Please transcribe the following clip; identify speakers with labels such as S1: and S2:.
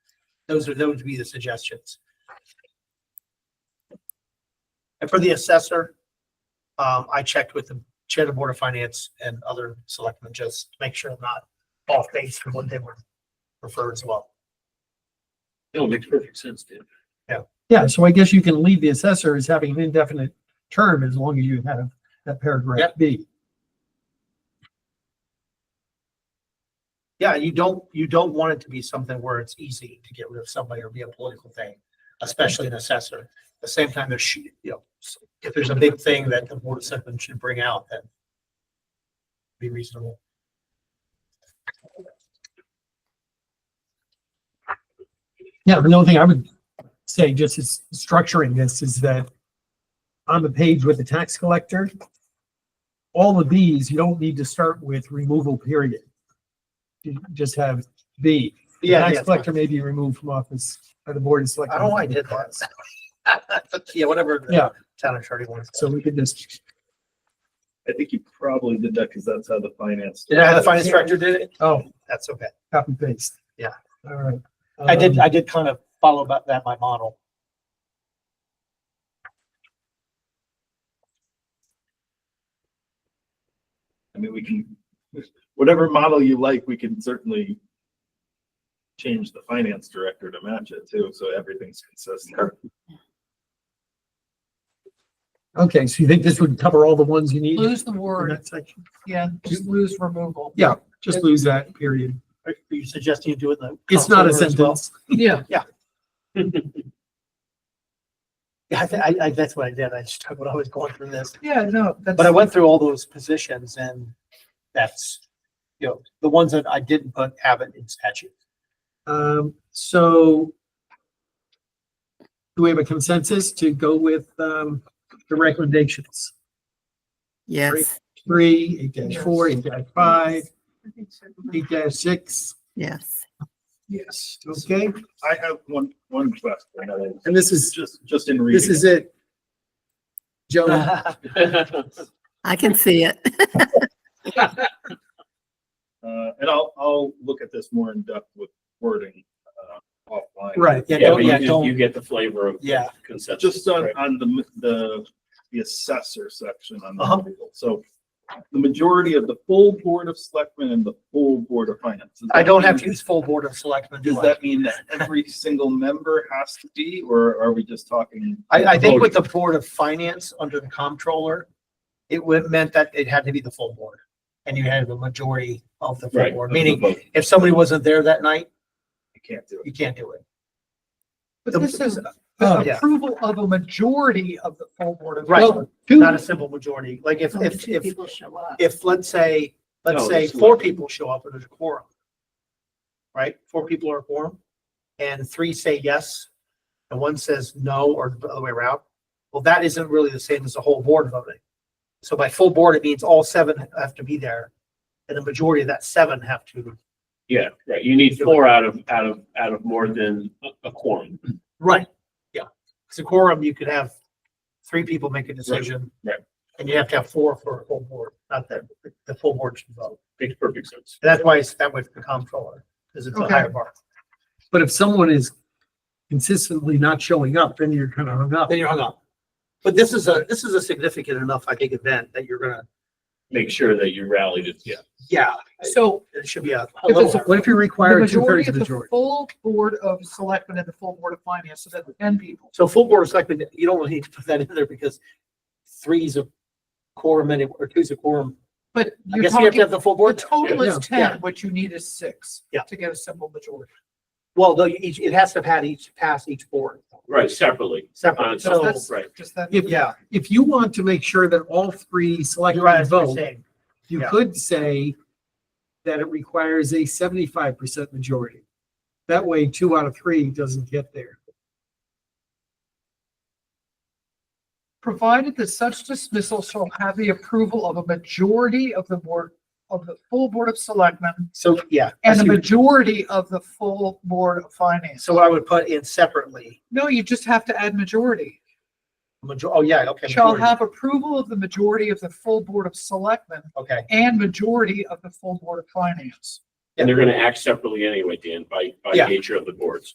S1: Those are, those would be the suggestions. And for the assessor, um, I checked with the chair of the board of finance and other selectmen, just to make sure I'm not off base from what they were referred as well.
S2: It makes perfect sense, Dan.
S3: Yeah, so I guess you can leave the assessor as having an indefinite term as long as you have that paragraph
S1: Yep.
S3: B.
S1: Yeah, you don't, you don't want it to be something where it's easy to get rid of somebody or be a political thing, especially an assessor. At the same time, there should, you know, if there's a big thing that the board of selectmen should bring out, then be reasonable.
S3: Yeah, the only thing I would say just is structuring this is that on the page with the tax collector, all of these, you don't need to start with removal period. You just have B. The Tax collector may be removed from office by the board of
S1: I
S3: selectmen.
S1: don't know why I did that. Yeah, whatever. the
S3: Yeah.
S1: Town attorney wants.
S3: So we could just,
S4: I think you probably did that because that's how the finance.
S1: Yeah, the finance director did it.
S3: oh,
S1: That's okay.
S3: copy paste.
S1: Yeah.
S3: All right.
S1: I did,
S3: Um,
S1: I did kind of follow about that, my model.
S4: I mean, we can, whatever model you like, we can certainly change the finance director to match it too, so everything's consistent.
S3: Okay, so you think this would cover all the ones you need?
S5: Lose the
S3: in
S5: word,
S3: that section?
S5: yeah, just lose removal.
S3: Yeah, just lose that period.
S1: Are are you suggesting you do it in the?
S3: It's not a
S1: council order as well?
S3: sentence.
S5: Yeah.
S1: Yeah, I, thi- I, I, that's what I did. I just took what I was going through this.
S5: Yeah, no,
S1: But I
S5: that's,
S1: went through all those positions and that's, you know, the ones that I didn't put have it in statute.
S3: Um, so do we have a consensus to go with, um, the recommendations?
S6: Yes,
S3: Three, eight dash four, eight dash five, eight dash six,
S6: yes.
S5: yes.
S3: okay?
S4: I have one, one question. uh,
S3: And this is,
S4: Just, just in reading.
S3: this is it. Joe,
S6: I can see it.
S4: it. Uh, and I'll, I'll look at this more in depth with wording, uh, offline.
S3: right, yeah,
S2: Yeah,
S3: don't-
S2: but
S1: yeah,
S2: you just-
S1: don't-
S2: you get the flavor of.
S1: Yeah.
S2: Consensus.
S4: Just on,
S2: right?
S4: on the, the, the assessor section on the
S1: Uh-huh.
S4: article. So the majority of the full board of selectmen and the full board of finance. Does
S1: I
S4: that
S1: don't have
S4: mean-
S1: to use full board of selectmen, do
S4: Does
S1: I?
S4: that mean that every single member has to be, or are we just talking?
S1: I, I
S4: Oh,
S1: think with the board of finance under the comptroller, it would, meant that it had to be the full board. And you had the majority of the full
S2: Right.
S1: board,
S2: that's
S1: meaning
S2: the vote.
S1: if somebody wasn't there that night,
S4: I can't do it.
S1: you can't do it.
S5: But this is
S3: Oh,
S1: yeah.
S5: approval of a majority of the full board of.
S1: Right.
S5: Well,
S1: Not
S5: Two,
S1: a simple majority. Like if, if,
S6: Two
S1: if,
S6: people show up.
S1: if, let's say, let's
S2: No,
S1: say
S2: it's
S1: four
S2: like-
S1: people show up and there's a quorum. Right? Four people are a quorum and three say yes and one says no or the other way around. Well, that isn't really the same as the whole board voting. So by full board, it means all seven have to be there and the majority of that seven have to.
S2: Yeah, right. You need four out of, out of, out of more than a- a quorum.
S1: Right. Yeah. Because a quorum, you could have three people make a decision.
S2: right.
S1: And you have to have four for a full board, not that the full board should vote.
S2: Makes perfect sense.
S1: And that's why it's that way for the comptroller, because it's a
S5: Okay.
S1: higher bar.
S3: but if someone is consistently not showing up, then you're kind of hung up.
S1: Then you're hung up. But this is a, this is a significant enough, I think, event that you're gonna,
S2: Make sure that you rallied it. Yeah.
S1: yeah,
S5: so
S1: it should be a. a
S5: If it's
S1: little-
S3: What if you
S5: the
S3: require two
S5: majority
S3: thirds
S5: of the
S3: majority?
S5: full board of selectmen and the full board of finance, so that's ten people.
S1: So full board is like, you don't really need to put that in there because three's a quorum and or two's a quorum.
S5: But
S1: I
S5: you're
S1: guess you have to
S5: talking,
S1: have the full
S5: the
S1: board.
S5: total
S3: Yeah.
S5: is
S1: Yeah.
S5: ten, what you need is six.
S1: Yeah.
S5: To get a simple majority.
S1: Well, though, each, it has to have had each, pass each board
S2: Right, separately.
S5: Uh,
S1: separately.
S2: So
S1: So,
S5: that's-
S2: right.
S5: Just that.
S3: If-
S1: yeah,
S3: If you want to make sure that all three
S1: you're right,
S3: selectmen
S1: that's what I'm
S3: vote,
S1: saying.
S3: You
S1: Yeah.
S3: could say that it requires a seventy-five percent majority. That way, two out of three doesn't get there.
S5: provided that such dismissal shall have the approval of a majority of the board, of the full board of selectmen
S1: So, yeah.
S5: and the majority of the full board of finance.
S1: So I would put in separately,
S5: No, you just have to add majority.
S1: major, oh, yeah, okay.
S5: Shall
S1: majority.
S5: have approval of the majority of the full board of selectmen
S1: Okay,
S5: and majority of the full board of finance.
S2: And they're gonna act separately anyway, Dan, by, by
S1: Yeah.
S2: nature of the boards.